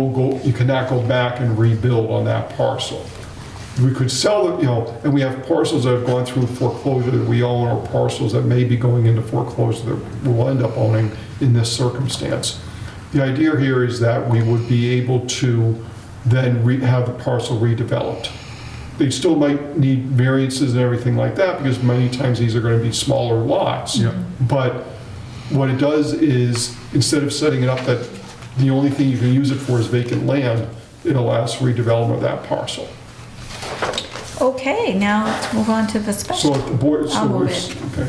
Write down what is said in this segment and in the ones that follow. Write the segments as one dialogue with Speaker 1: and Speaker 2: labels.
Speaker 1: We'll go- You cannot go back and rebuild on that parcel. We could sell it, you know, and we have parcels that have gone through foreclosure that we own, or parcels that may be going into foreclosure that we'll end up owning in this circumstance. The idea here is that we would be able to then re- have the parcel redeveloped. They still might need variances and everything like that, because many times these are going to be smaller lots.
Speaker 2: Yeah.
Speaker 1: But what it does is, instead of setting it up that the only thing you can use it for is vacant land, it allows redevelopment of that parcel.
Speaker 3: Okay, now let's move on to the
Speaker 1: So
Speaker 3: special,
Speaker 1: if the board, so
Speaker 3: I'll move
Speaker 1: it's- okay,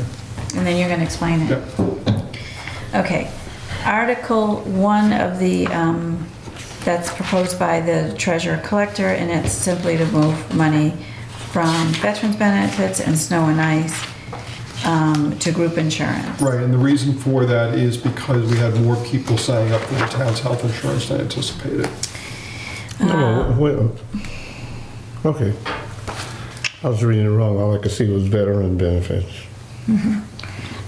Speaker 3: and then you're gonna explain it.
Speaker 1: yeah,
Speaker 3: Okay, Article 1 of the, um, that's proposed by the treasurer collector, and it's simply to move money from veterans benefits and snow and ice um, to group insurance.
Speaker 1: right, and the reason for that is because we had more people signing up for the town's health insurance than anticipated.
Speaker 2: No, wait, okay. I was reading it wrong, all I could see was veteran benefits.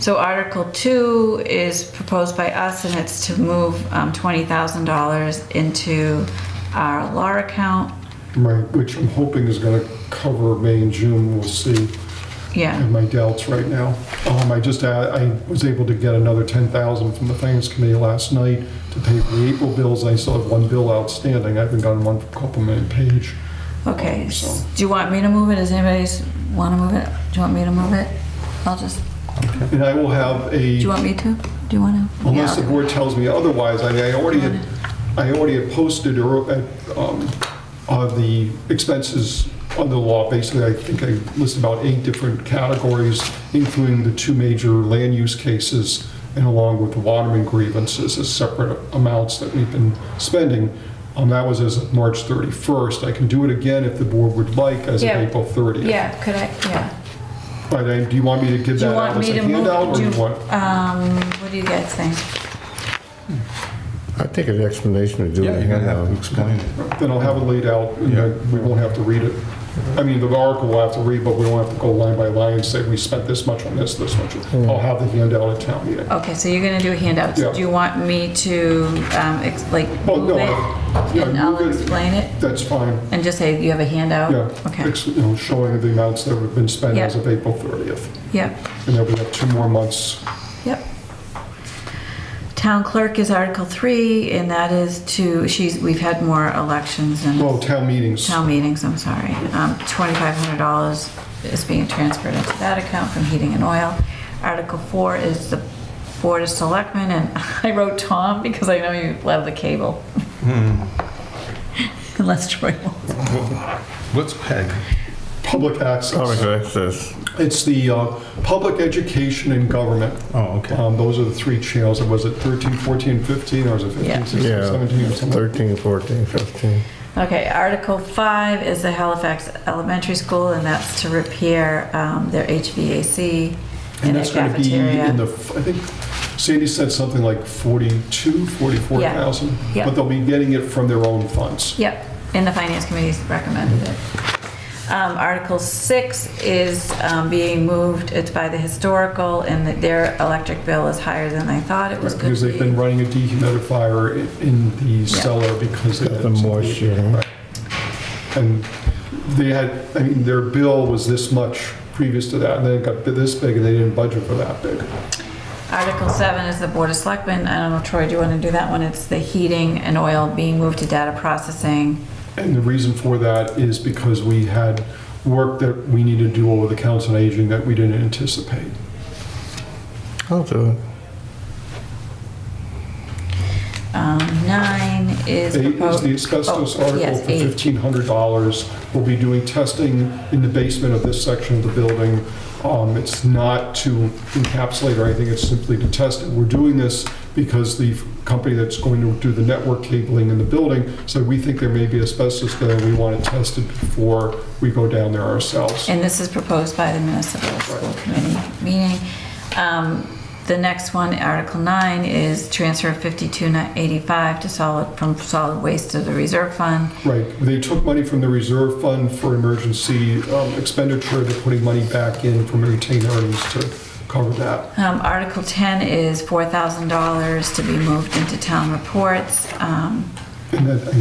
Speaker 3: So Article 2 is proposed by us, and it's to move um, $20,000 into our LAR account.
Speaker 1: Right, which I'm hoping is gonna cover May and June, we'll see, I have
Speaker 3: Yeah,
Speaker 1: my doubts right now. Um, I just, add- I was able to get another 10,000 from the finance committee last night to pay for the April bills, I still have one bill outstanding, I haven't gotten one from Copeland and Page.
Speaker 3: okay. S- Do you want me to move it? Does anybody want to move it? Do you want me to move it? I'll just
Speaker 1: And I will have a.
Speaker 3: Do you want me to? Do you want to?
Speaker 1: Unless the board tells me otherwise, I I already had, I already had posted or, um, on the expenses on the law, basically, I think I listed about eight different categories, including the two major land use cases, and along with the Waterman grievances as separate amounts that we've been spending. Um, That was as of March 31st. I can do it again if the board would like, as of
Speaker 3: Yeah.
Speaker 1: April 30th.
Speaker 3: Yeah, could I, yeah.
Speaker 1: But I- do you want me to give
Speaker 3: Do
Speaker 1: that
Speaker 3: you
Speaker 1: out
Speaker 3: want
Speaker 1: as
Speaker 3: me
Speaker 1: a
Speaker 3: to move?
Speaker 1: handout, or
Speaker 3: do
Speaker 1: you
Speaker 3: you-
Speaker 1: want?
Speaker 3: Um, what do you guys think?
Speaker 2: I think an explanation would do Um, it.
Speaker 4: Yeah, you're gonna have to explain it.
Speaker 1: Then I'll have it laid out, and then we won't have to read it. I mean, the article we'll have to read, but we won't have to go line by line and say, we spent this much on this, this much. I'll have the handout at town meeting.
Speaker 3: Okay, so you're gonna do handouts.
Speaker 1: Yeah.
Speaker 3: Do you want me to, um, ex- like,
Speaker 1: Well,
Speaker 3: move
Speaker 1: no,
Speaker 3: it?
Speaker 1: I- yeah,
Speaker 3: And I'll
Speaker 1: move it.
Speaker 3: explain it?
Speaker 1: That's fine,
Speaker 3: And just say you have a handout?
Speaker 1: yeah.
Speaker 3: Okay,
Speaker 1: Ex- You know, showing the amounts that have been spent as
Speaker 3: Yeah.
Speaker 1: of April 30th.
Speaker 3: yep,
Speaker 1: And then we have two more months.
Speaker 3: yep. Town clerk is Article Three, and that is to, she's, we've had more elections and.
Speaker 1: Well, town meetings.
Speaker 3: town meetings, I'm sorry. Um, $2,500 is being transferred into that account from heating and oil. Article four is the Board of Selectmen, and I wrote Tom because I know you love the cable. Unless Troy wants.
Speaker 4: What's PEG?
Speaker 1: Public
Speaker 2: Public
Speaker 1: access.
Speaker 2: access.
Speaker 1: It's the uh, public education and government.
Speaker 4: Oh, okay.
Speaker 1: Um, Those are the three channels. And Was it 13, 14, 15, or was it 15,
Speaker 3: Yeah.
Speaker 1: 16,
Speaker 2: Yeah,
Speaker 1: 17? or something?
Speaker 2: 13, 14, 15.
Speaker 3: Okay, Article five is the Halifax Elementary School, and that's to repair um, their HVAC in
Speaker 1: And
Speaker 3: the
Speaker 1: that's going to be in the,
Speaker 3: cafeteria.
Speaker 1: I think Sandy said something like 42, 44,000.
Speaker 3: Yeah.
Speaker 1: But they'll be getting it from their own funds.
Speaker 3: Yep, and the Finance Committee's recommended it. Um, Article 6 is um, being moved, it's by the historical, and that their electric bill is higher than they thought it was going
Speaker 1: Because
Speaker 3: to
Speaker 1: they've been
Speaker 3: be.
Speaker 1: running a dehumidifier i- in the
Speaker 3: Yeah.
Speaker 1: cellar because they
Speaker 2: Got
Speaker 1: had
Speaker 2: the moisture, huh?
Speaker 1: Right. And they had, I mean, their bill was this much previous to that, and then it got this big, and they didn't budget for that big.
Speaker 3: Article 7 is the Board of Selectmen, I don't know, Troy, do you want to do that one? It's the heating and oil being moved to data processing.
Speaker 1: And the reason for that is because we had work that we needed to do over the council on aging that we didn't anticipate.
Speaker 2: I'll do it.
Speaker 3: Um, 9 is
Speaker 1: Eight is
Speaker 3: proposed...
Speaker 1: the asbestos
Speaker 3: oh,
Speaker 1: article
Speaker 3: yes,
Speaker 1: for
Speaker 3: eight.
Speaker 1: fifteen hundred dollars. We'll be doing testing in the basement of this section of the building. Um, it's not to encapsulate or anything, it's simply to test it. We're doing this because the company that's going to do the network cabling in the building, so we think there may be asbestos there, we want it tested before we go down there ourselves.
Speaker 3: And this is proposed by the municipal school committee meeting. Um, The next one, Article 9, is transfer of 5285 to solid, from solid waste to the reserve fund.
Speaker 1: Right, they took money from the reserve fund for emergency um, expenditure, they're putting money back in from retained earnings to cover that.
Speaker 3: Um, Article 10 is $4,000 to be moved into town reports. Um,
Speaker 1: And that, I